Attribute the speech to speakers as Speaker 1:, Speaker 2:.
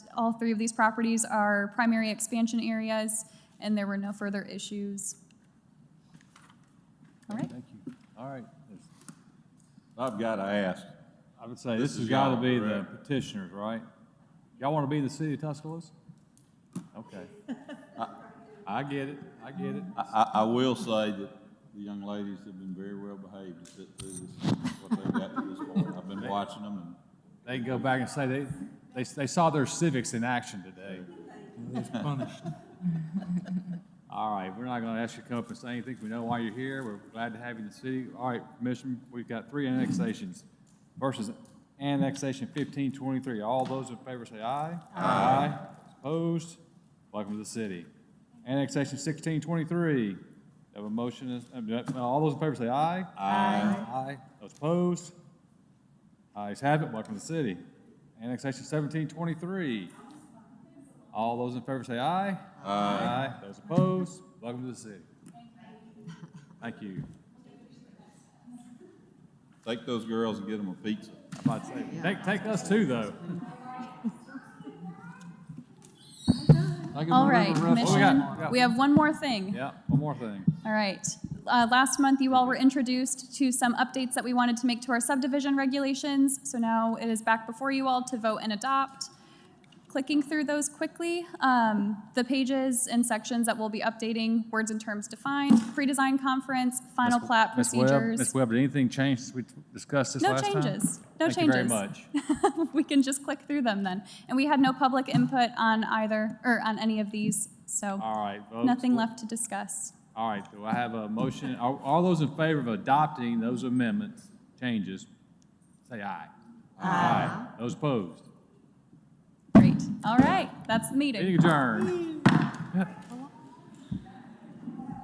Speaker 1: all three of these properties are primary expansion areas, and there were no further issues. All right.
Speaker 2: Thank you. All right. I've got to ask,
Speaker 3: I would say
Speaker 2: This
Speaker 3: this
Speaker 2: is
Speaker 3: has got
Speaker 2: y'all,
Speaker 3: to be the
Speaker 2: correct?
Speaker 3: petitioners, right? Y'all want to be the city of Tuscaloosa?
Speaker 2: okay.
Speaker 3: I get it, I get it.
Speaker 2: I, I, I will say that the young ladies have been very well behaved to sit through this, what they've got to this point. I've been watching them and
Speaker 3: They can go back and say they, they, they saw their civics in action today. All right, we're not going to ask you to come up and say anything. We know why you're here. We're glad to have you in the city. All right, Commissioner, we've got three annexations. First is annexation fifteen twenty-three. All those in favor say aye. Aye. Opposed? Welcome to the city. Annexation sixteen twenty-three. Have a motion, is- uh, all those in favor say aye. Aye. Aye. Those opposed? Ayes have it, welcome to the city. Annexation seventeen twenty-three. All those in favor say aye. Aye. Those opposed, welcome to the city. Thank you.
Speaker 2: take those girls and get them a pizza.
Speaker 3: I might say, take, take us too, though.
Speaker 1: All right, Commissioner,
Speaker 3: got?
Speaker 1: we have one more thing.
Speaker 3: Yeah, one more thing.
Speaker 1: All right. Uh, Last month, you all were introduced to some updates that we wanted to make to our subdivision regulations, so now it is back before you all to vote and adopt. Clicking through those quickly, um, the pages and sections that we'll be updating, words and terms defined, pre-design conference, final
Speaker 3: Ms.
Speaker 1: plat
Speaker 3: Ms. Webb-
Speaker 1: procedures.
Speaker 3: Ms. Webb, did anything change since we discussed this
Speaker 1: No
Speaker 3: last time?
Speaker 1: changes. No
Speaker 3: Thank you very
Speaker 1: changes.
Speaker 3: much.
Speaker 1: We can just click through them then. And we had no public input on either, or on any of these, so
Speaker 3: All right. folks,
Speaker 1: nothing
Speaker 3: we'll-
Speaker 1: left to discuss.
Speaker 3: All right, do I have a motion? Are, all those in favor of adopting those amendments, changes, say aye. Aye. Those opposed?
Speaker 1: Great. All right, that's the meeting.
Speaker 3: Meeting adjourned.